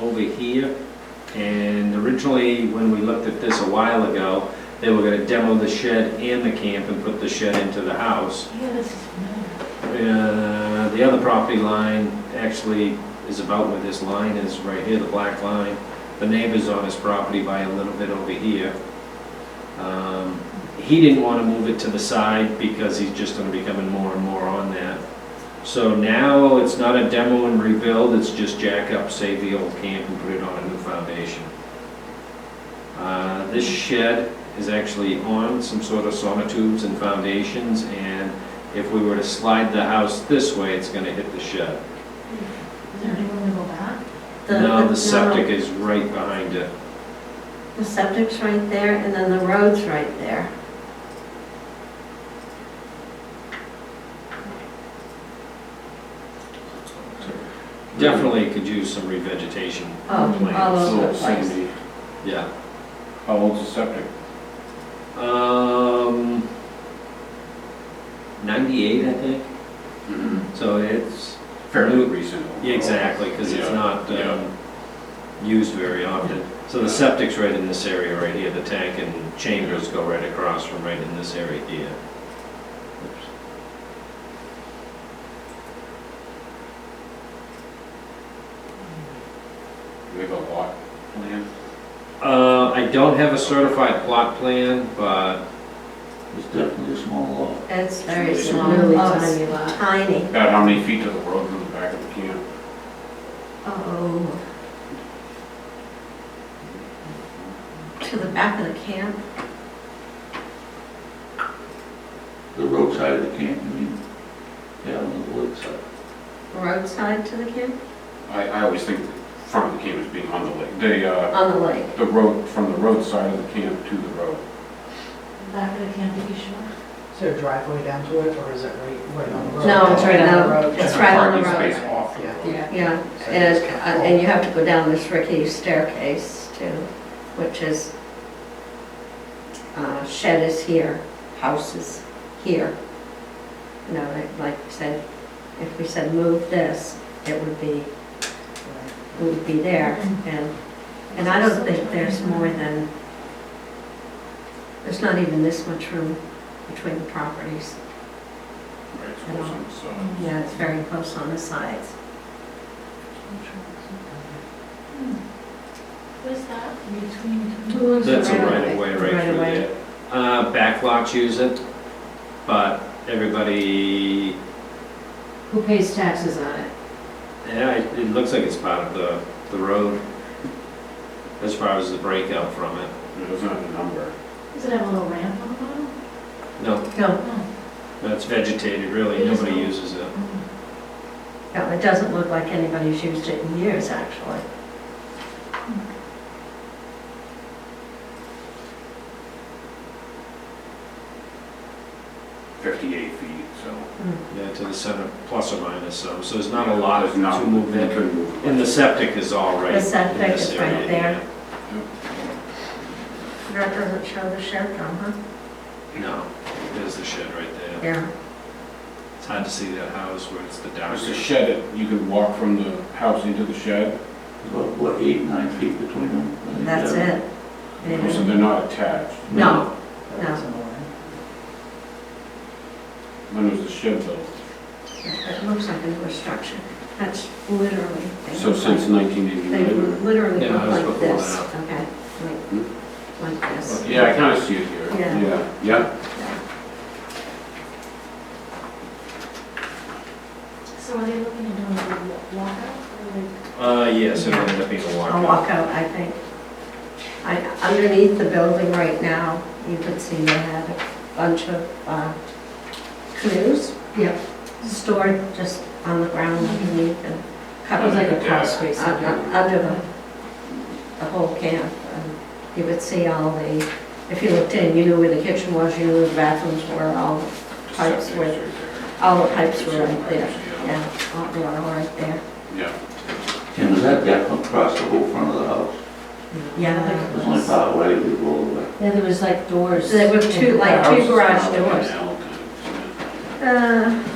over here. And originally, when we looked at this a while ago, they were gonna demo the shed and the camp and put the shed into the house. Yeah, this is familiar. Uh, The other property line actually is about where this line is, right here, the black line. The neighbor's on his property by a little bit over here. Um, He didn't want to move it to the side because he's just going to be coming more and more on that. So now it's not a demo and rebuild, it's just jack up, save the old camp and put it on a new foundation. Uh, This shed is actually on some sort of sonotubes and foundations and if we were to slide the house this way, it's gonna hit the shed. Is there any room to go back? The- Now, no, the septic is right behind it. The septic's right there, and then the road's right there. Definitely could use some revegetation, Oh, Plan, all over the So place. Sandy, yeah. how old's the septic? Um, ninety-eight, I think, Mm-hmm. so it's, Fairly recent. yeah, exactly, because it's Yeah, not, yeah. um, used very often. So the septic's right in this area right here, the tank and chambers go right across from right in this area here. We have a lot planned. Uh, I don't have a certified plot plan, but It's definitely a small lot. It's very It's small. really Oh, it's tiny lot. Tiny. About how many feet to the road from the back of the camp? Oh. To the back of the camp? The roadside of the camp, I mean, yeah, on the lakeside. Roadside to the camp? I, I always think the front of the camp is being on the lake. The, uh, On the lake. the road, from the roadside of the camp to the road. Back of the camp, are you sure? Is there a driveway down to it, or is it right, right on the road? No, It's right on the no, road. It's right on the Parking road. space off the Yeah. road. Yeah. Yeah, and, it's- and you have to go down this rickety staircase too, which is, uh, shed is here, house is here. You know, like- like you said, if we said move this, it would be, it would be there. And, and I don't think there's more than, there's not even this much room between the properties. Right, it's close on the side. Yeah, it's very close on the sides. What's Hmm. that? Between. two- That's a Right right away. of way right Right through away. there. Uh, backlots use it, but everybody, Who pays taxes on it? yeah, it it looks like it's part of the, the road as far as the breakout from it. It doesn't have a number. Does it have a little ramp on the bottom? Oh, No, No, that's vegetated, really, It is nobody not. uses it. oh. no, it doesn't look like anybody's used it in years, actually. Fifty-eight feet, so. Yeah, to the center, plus or minus some, so there's not a lot of There's not- to move you in. couldn't move it. And the septic is all right. The in septic this is right area, there. That doesn't show the shed though, huh? yeah. No, there's the shed right there. Yeah. It's hard to see that house where it's the dark. There's a shed, that you can walk from the house into the shed, It's About, what, eight, nine feet between them? I think, That's yeah. it. so Yeah. they're not attached. No, That's in the way. When was the shed built? it looks like a new structure. That's literally. they So look since like- nineteen They eighty-nine? literally Yeah, look it was like before this, that. okay? Hmm? Like, like this. Yeah, I kinda see it here. Yeah. Yeah. So are they looking to do a walkout or like? Uh, yes, it ended up being a A walkout. walkout, I think. I, underneath the building right now, you could see they had a bunch of uh, canoes. Yep. Stored just on the ground underneath and It Mm-hmm. was covered. like a Yeah. crawl space. Uh, uh, under the, the whole camp. and You would see all the, if you looked in, you knew where the kitchen was, you knew where the bathrooms were, all, Pipes Septic's were- right there. all the pipes were right there. Yeah. Yeah, all the water right there. Yeah. Tim, is that deck across the whole front of the house? Yeah. It's only part way, we go all the way. Then there was like doors. There were two, like, Houses garage are all doors. now, kind of, Uh,